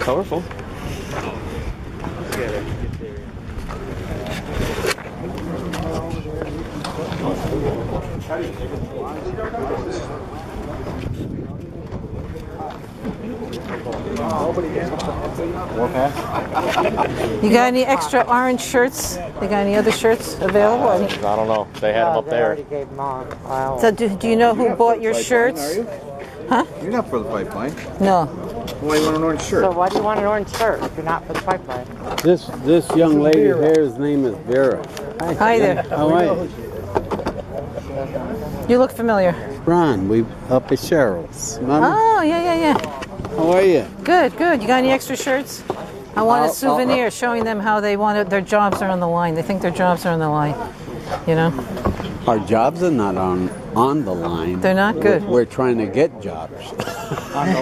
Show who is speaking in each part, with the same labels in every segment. Speaker 1: colorful.
Speaker 2: You got any extra orange shirts? They got any other shirts available?
Speaker 1: I
Speaker 2: Any-
Speaker 1: don't know. They had them
Speaker 3: Oh,
Speaker 1: up
Speaker 3: they
Speaker 1: there.
Speaker 3: already gave them on. Wow.
Speaker 2: So do, do you know who bought your shirts?
Speaker 4: Huh? You're not for the pipeline.
Speaker 2: No.
Speaker 4: Why you want an orange
Speaker 3: So
Speaker 4: shirt?
Speaker 3: why do you want an orange shirt if you're not for the pipeline?
Speaker 5: This this young lady here's name is Vera.
Speaker 2: Hi there.
Speaker 5: How are you?
Speaker 2: You look familiar.
Speaker 5: Ron, we up at Cheryl's. Mom,
Speaker 2: Oh, yeah, yeah, yeah.
Speaker 5: how are you?
Speaker 2: Good, good. You got any extra shirts? I want a souvenir showing them how they want it, their jobs are on the line. They think their jobs are on the line. You know?
Speaker 5: Our jobs are not on on the line.
Speaker 2: They're not good.
Speaker 5: We're, we're trying to get jobs.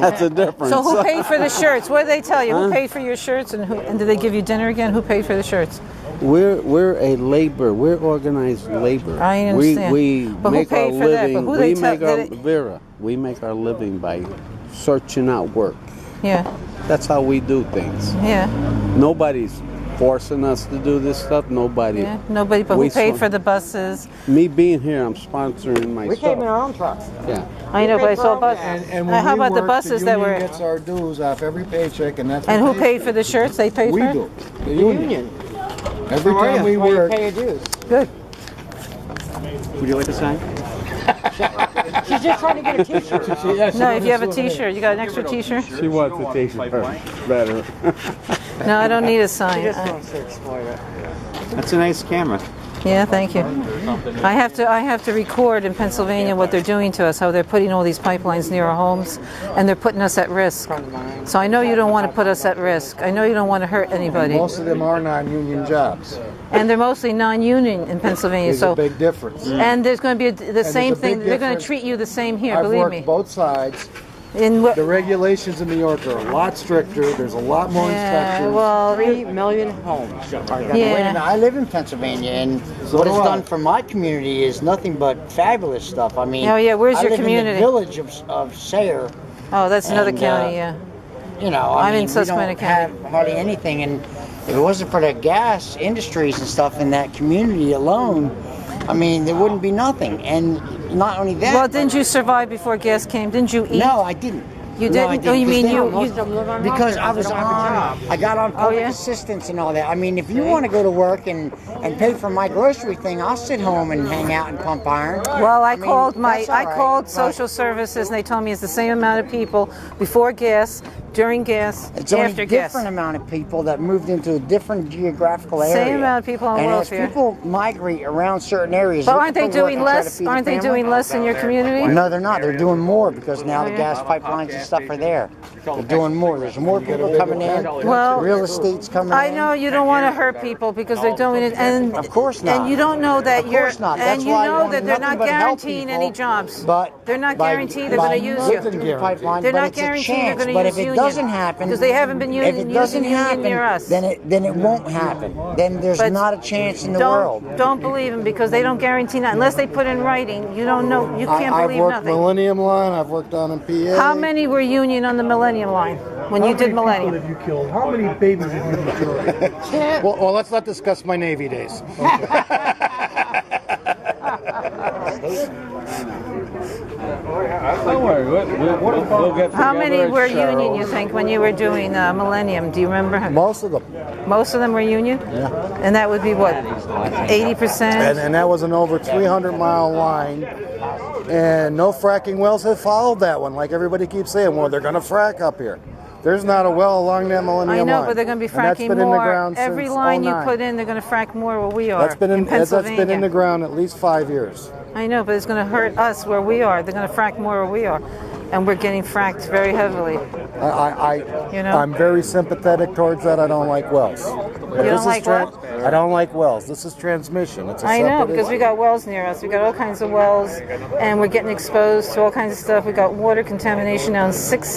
Speaker 5: That's a difference.
Speaker 2: So who paid for the shirts? What did they tell you? Who paid for your shirts and who and did they give you dinner again? Who paid for the shirts?
Speaker 5: We're we're a labor. We're organized labor.
Speaker 2: I understand.
Speaker 5: We we
Speaker 2: But who
Speaker 5: make our
Speaker 2: paid for that? But
Speaker 5: living.
Speaker 2: who
Speaker 5: we
Speaker 2: they tell-
Speaker 5: make our
Speaker 2: did it-
Speaker 5: Vera. We make our living by searching out work.
Speaker 2: Yeah.
Speaker 5: That's how we do things.
Speaker 2: Yeah.
Speaker 5: Nobody's forcing us to do this stuff. Nobody.
Speaker 2: Yeah. Nobody but who
Speaker 5: We
Speaker 2: paid
Speaker 5: saw-
Speaker 2: for the buses?
Speaker 5: Me being here, I'm sponsoring
Speaker 3: We
Speaker 5: myself.
Speaker 3: came in our own trucks.
Speaker 5: yeah.
Speaker 2: I know, but I saw
Speaker 3: And-
Speaker 2: buses.
Speaker 6: And
Speaker 2: Uh,
Speaker 6: when
Speaker 2: How
Speaker 6: we
Speaker 2: about the
Speaker 6: work,
Speaker 2: buses that
Speaker 6: union
Speaker 2: were
Speaker 6: Gets our dues off every paycheck, and that's.
Speaker 2: and
Speaker 6: what
Speaker 2: who
Speaker 6: they-
Speaker 2: paid for the shirts? They paid
Speaker 6: We
Speaker 2: for it?
Speaker 6: do. The
Speaker 3: The
Speaker 6: union.
Speaker 3: union.
Speaker 6: Every
Speaker 3: How are
Speaker 6: time
Speaker 3: you?
Speaker 6: we
Speaker 3: Why you
Speaker 6: work,
Speaker 3: pay your dues.
Speaker 2: Good.
Speaker 4: Would you like a sign?
Speaker 3: She's just trying to get a T-shirt.
Speaker 2: No, if you have a T-shirt, you got an extra T-shirt.
Speaker 5: She wants to take better.
Speaker 2: No, I don't need a
Speaker 3: She
Speaker 2: sign.
Speaker 3: just
Speaker 2: Uh,
Speaker 3: wants to exploit it.
Speaker 4: That's a nice camera.
Speaker 2: Yeah, thank you. I have to, I have to record in Pennsylvania what they're doing to us, how they're putting all these pipelines near our homes, and they're putting us at risk. So I know you don't want to put us at risk. I know you don't want to hurt anybody.
Speaker 6: most of them are non-union jobs.
Speaker 2: And they're mostly non-union in Pennsylvania,
Speaker 6: There's a
Speaker 2: so, Mm.
Speaker 6: big difference.
Speaker 2: and there's going to be a- the same
Speaker 6: a big
Speaker 2: thing, they're going to
Speaker 6: difference.
Speaker 2: treat you the same here,
Speaker 6: I've
Speaker 2: believe
Speaker 6: worked
Speaker 2: me.
Speaker 6: both sides.
Speaker 2: In what,
Speaker 6: The regulations in New York are a lot stricter. There's a lot more
Speaker 2: yeah,
Speaker 6: inspectors.
Speaker 2: well,
Speaker 3: Three million homes are gonna
Speaker 2: Yeah.
Speaker 7: Wait a minute, I live in Pennsylvania, and
Speaker 6: So
Speaker 7: what
Speaker 6: do
Speaker 7: it's
Speaker 6: I.
Speaker 7: done for my community is nothing but fabulous stuff. I mean,
Speaker 2: Oh, yeah, where's
Speaker 7: I
Speaker 2: your
Speaker 7: live In
Speaker 2: community?
Speaker 7: the village of, of Sayre,
Speaker 2: oh, that's another
Speaker 7: And, uh,
Speaker 2: county, yeah.
Speaker 7: you know,
Speaker 2: I'm
Speaker 7: I
Speaker 2: in
Speaker 7: mean, we
Speaker 2: Susquehanna
Speaker 7: don't
Speaker 2: County.
Speaker 7: have hardly anything, and if it wasn't for the gas industries and stuff in that community alone, I mean, there wouldn't be nothing. And not only that,
Speaker 2: Well, didn't you survive before gas came? Didn't you eat?
Speaker 7: No, I didn't.
Speaker 2: You
Speaker 7: No, I
Speaker 2: didn't? Oh, you
Speaker 7: 'cause
Speaker 2: mean
Speaker 7: they
Speaker 2: you-
Speaker 7: don't-
Speaker 2: you- Oh,
Speaker 7: most of them live on because I was on. I got on public
Speaker 2: yeah?
Speaker 7: assistance and all that. I mean, if you want to go to work and and pay for my grocery thing, I'll sit home and hang out and pump iron.
Speaker 2: Well, I,
Speaker 7: mean,
Speaker 2: called my
Speaker 7: that's all
Speaker 2: I
Speaker 7: right,
Speaker 2: called
Speaker 7: but
Speaker 2: social services, and they told me it's the same amount of people before gas, during gas,
Speaker 7: It's only
Speaker 2: after
Speaker 7: a
Speaker 2: gas.
Speaker 7: different amount of people that moved into a different geographical
Speaker 2: Same
Speaker 7: area.
Speaker 2: amount of people on
Speaker 7: and
Speaker 2: welfare.
Speaker 7: as people migrate around certain areas,
Speaker 2: But
Speaker 7: they
Speaker 2: aren't they
Speaker 7: can go to work
Speaker 2: doing
Speaker 7: and try to
Speaker 2: less?
Speaker 7: feed their
Speaker 2: Aren't they
Speaker 7: family.
Speaker 2: doing less in your community?
Speaker 7: No, they're not. They're doing more because now the gas pipelines and stuff are there. They're doing more. There's more people coming in.
Speaker 2: Well-
Speaker 7: real estate's coming in.
Speaker 2: I know you don't want to hurt people because they're doing it, and
Speaker 7: Of course
Speaker 2: And
Speaker 7: not.
Speaker 2: you don't know that
Speaker 7: Of
Speaker 2: you're,
Speaker 7: course not.
Speaker 2: and
Speaker 7: That's
Speaker 2: you
Speaker 7: why I
Speaker 2: know
Speaker 7: want
Speaker 2: that they're not
Speaker 7: nothing but help
Speaker 2: guaranteeing
Speaker 7: people,
Speaker 2: any jobs.
Speaker 7: But
Speaker 2: they're not
Speaker 7: by-
Speaker 2: guaranteed they're
Speaker 7: by
Speaker 2: going to use
Speaker 7: looking
Speaker 2: you.
Speaker 7: through the pipeline,
Speaker 2: They're
Speaker 7: but
Speaker 2: not
Speaker 7: it's a
Speaker 2: guaranteed
Speaker 7: chance.
Speaker 2: they're going
Speaker 7: But
Speaker 2: to
Speaker 7: if
Speaker 2: use
Speaker 7: it
Speaker 2: union
Speaker 7: doesn't happen,
Speaker 2: because they haven't been
Speaker 7: if
Speaker 2: using,
Speaker 7: it doesn't
Speaker 2: using union
Speaker 7: happen,
Speaker 2: near us.
Speaker 7: then it then it won't happen. Then there's
Speaker 2: But
Speaker 7: not a chance in the
Speaker 2: don't
Speaker 7: world.
Speaker 2: don't believe them because they don't guarantee that unless they put in writing. You don't know. You can't
Speaker 6: I, have
Speaker 2: believe
Speaker 6: worked
Speaker 2: nothing.
Speaker 6: Millennium Line. I've worked down in PA.
Speaker 2: How many were union on the Millennium Line when you did Millennium?
Speaker 6: you killed? How many babies have you destroyed?
Speaker 8: Well, well, let's not discuss my Navy days.
Speaker 5: Don't worry. We'll, we'll, we'll, we'll get
Speaker 2: How many
Speaker 5: together at
Speaker 2: were
Speaker 5: Cheryl's.
Speaker 2: union? You think when you were doing uh, Millennium? Do you remember?
Speaker 6: Most of them.
Speaker 2: Most of them were union. Yeah. And that would be what, eighty
Speaker 6: And,
Speaker 2: percent?
Speaker 6: and that was an over 300 mile line. And no fracking wells have followed that one. Like everybody keeps saying, well, they're going to frack up here. There's not a well along that millennium
Speaker 2: I know,
Speaker 6: line.
Speaker 2: but they're going to be
Speaker 6: And that's
Speaker 2: fracking
Speaker 6: been in the
Speaker 2: more.
Speaker 6: ground
Speaker 2: Every
Speaker 6: since
Speaker 2: line you
Speaker 6: 09.
Speaker 2: put in, they're going to frack more where we are.
Speaker 6: That's been in, that's
Speaker 2: Pennsylvania.
Speaker 6: been in the ground at least five years.
Speaker 2: I know, but it's going to hurt us where we are. They're going to frack more where we are, and we're getting fracked very heavily.
Speaker 6: I, I, I
Speaker 2: You know?
Speaker 6: I'm very sympathetic towards that. I don't like wells. But
Speaker 2: don't like
Speaker 6: I don't like wells. This is transmission. It's a
Speaker 2: I know
Speaker 6: separate
Speaker 2: because we
Speaker 6: issue.
Speaker 2: got wells near us. We got all kinds of wells, and we're getting exposed to all kinds of stuff. We got water contamination on six